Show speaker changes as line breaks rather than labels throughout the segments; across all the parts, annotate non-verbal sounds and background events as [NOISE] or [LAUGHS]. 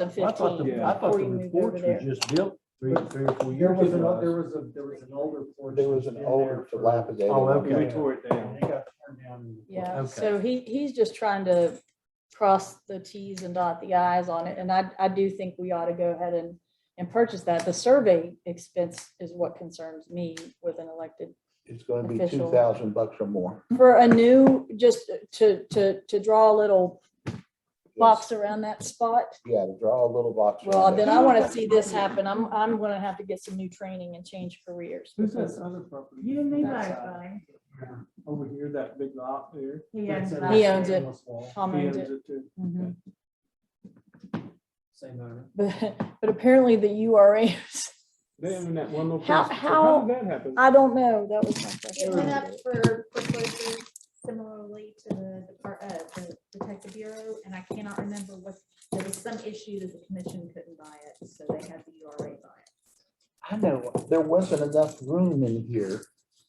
I thought the, I thought
Before
the
you moved
reports
over
were
there.
just built three, three or four
There
years
was an, o- there
ago.
was a, there was an older porch.
There was an
in
older
there for-
dilapidated.
Oh, okay.
Yeah.
We tore it
Yeah,
down.
It got torn down.
Yeah,
Okay.
so he, he's just trying to cross the Ts and dot the Is on it, and I, I do think we ought to go ahead and, and purchase that. The survey expense is what concerns me with an elected.
It's gonna be two
Official.
thousand bucks or more.
For a new, just to, to, to draw a little
Yes.
box around that spot,
Yeah, to draw a little box.
well,
around
then
it.
I want to see this happen. I'm, I'm gonna have to get some new training and change careers.
Who's that other property?
You and me
That
both,
uh,
side.
buddy.
Over here, that big lot there.
He
That's
owns it.
in
He
the
owns it.
stainless wall.
Tom
He
owns it.
too.
Mhm.
Same owner.
But, but apparently the URAs, Then
in that one little.
how, how,
did that happen?
Uh,
I don't know. That was my question.
It went up for foreclosure similarly to the, Depart- uh, the Detective Bureau, and I cannot remember what, there was some issue that the commission couldn't buy it, so they had the URA buy it.
I know, there wasn't enough room in here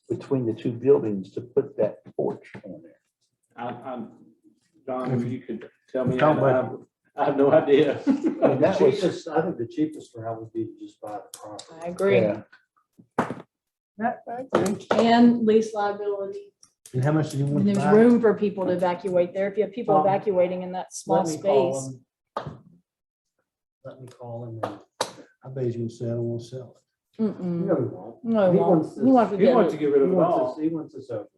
between the two buildings to put that porch on there.
I, I'm, Don, if you could tell me,
Don't
I have- I have no
[LAUGHS]
idea.
I mean, the
That was-
cheapest, I think the cheapest for how would be to just buy the property.
I agree.
Yeah.
And lease liability.
And how much do you
And
want to
there's
buy?
room for people to evacuate there. If you have people
Um,
evacuating in that small
Let me call
space.
him. Let me call him. and-
I bet he's gonna say, I don't wanna sell it.
Mm-mm.
No, he won't.
No,
He
we won't.
wants
We want to
He
get
wants
it.
to get rid
He
of it
wants
all.
us, he wants us over.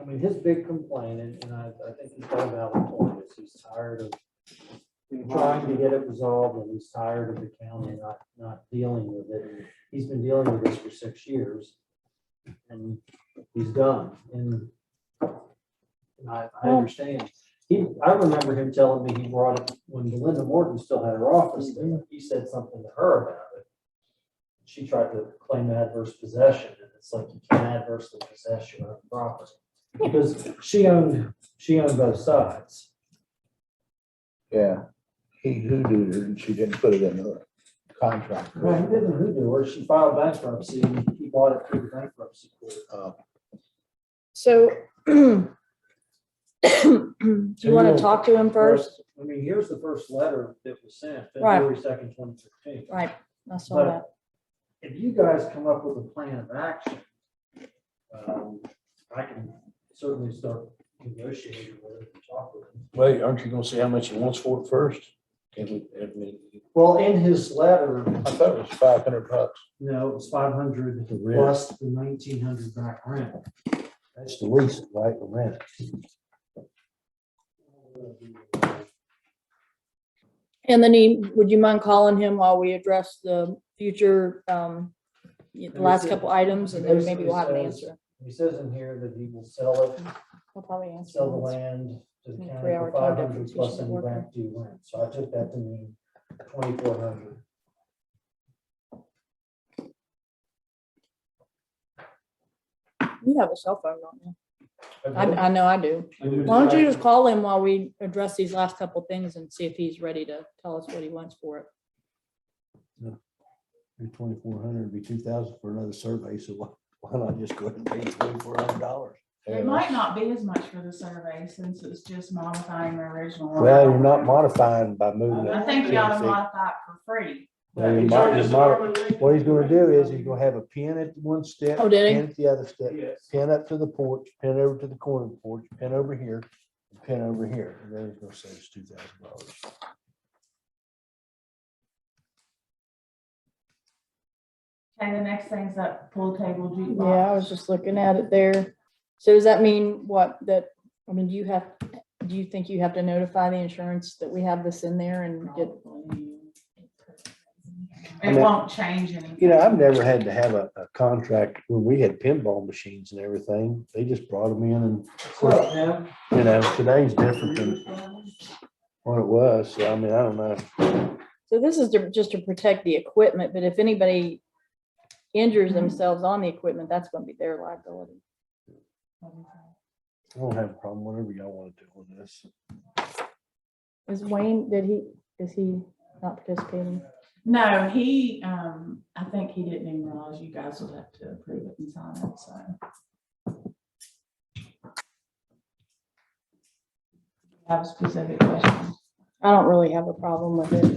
I mean, his big complaint, and and I, I think he's got a valid point, is he's tired of trying to get it resolved, and he's tired of the county not, not dealing with it. And He's been dealing with this for six years, and he's done, and and I, I
Well-
understand. He, I remember him telling me he brought it, when Belinda Morton still had her office, there, he said something to her about it. She tried to claim adverse possession, and it's like you can't adversely possess your own property. Because she owned, she owned both sides.
Yeah, he hoodooed her and she didn't put it in her contract.
Well, he didn't redo her. She filed bankruptcy and he bought it through the bankruptcy court.
Uh,
So. [CLEARS THROAT] Do you want to talk to him first?
I mean, here's the first letter that was sent,
Right.
February second, twenty fifteen.
Right, I saw
But-
that.
If you guys come up with a plan of action, um, I can certainly start negotiating with him and talk with him.
Wait, aren't you gonna say how much he wants for it first? Can we, I mean,
Well, in his letter,
I thought it was five hundred bucks.
you know, it was five hundred
The rent.
plus the nineteen hundred back rent.
that's the lease, right, the rent.
And then he, would you mind calling him while we address the future, um, the last couple items and then maybe we'll have an
uh,
answer.
He says in here that he will sell it
He'll probably answer.
sell the
once.
land to the
Mm,
county
three-hour
for
time
five hundred
difference, you
plus
should
any
work on
back due rent, so I took that to mean twenty-four hundred.
You have a cell phone, don't you? I, I know I do. Why
Why
don't you just call him while we address these last couple things and see if he's ready to tell us what he wants for it?
Twenty-four hundred would be two thousand for another survey, so why, why not just go ahead and pay twenty-four hundred dollars?
It might not be as much for the survey since it's just modifying the original. one.
Well, you're not modifying by moving
I
it.
think you ought to modify it for free.
Well, you might- you might- What he's gonna do is he's gonna have a pin at one step.
Oh, did he?
Pin at the other step,
Yes.
pin up to the porch, pin over to the corner of the porch, pin over here, and pin over here. And then he's gonna save us two thousand dollars.
Okay, the next thing's that pool table jukebox.
Yeah, I was just looking at it there. So does that mean what, that, I mean, do you have, do you think you have to notify the insurance that we have this in there and get?
It won't change anything.
You know, I've never had to have a, a contract when we had pinball machines and everything. They just brought them in and,
Well, now,
you know, today's different than what it was. So I mean, I don't know.
So this is to- just to protect the equipment, but if anybody injures themselves on the equipment, that's gonna be their liability.
I don't have a problem, whatever y'all want to do with this.
Is Wayne, did he, is he not participating?
No, he, um, I think he didn't even realize you guys would have to approve it and sign it, so. Have a specific question.
I don't really have a problem with it.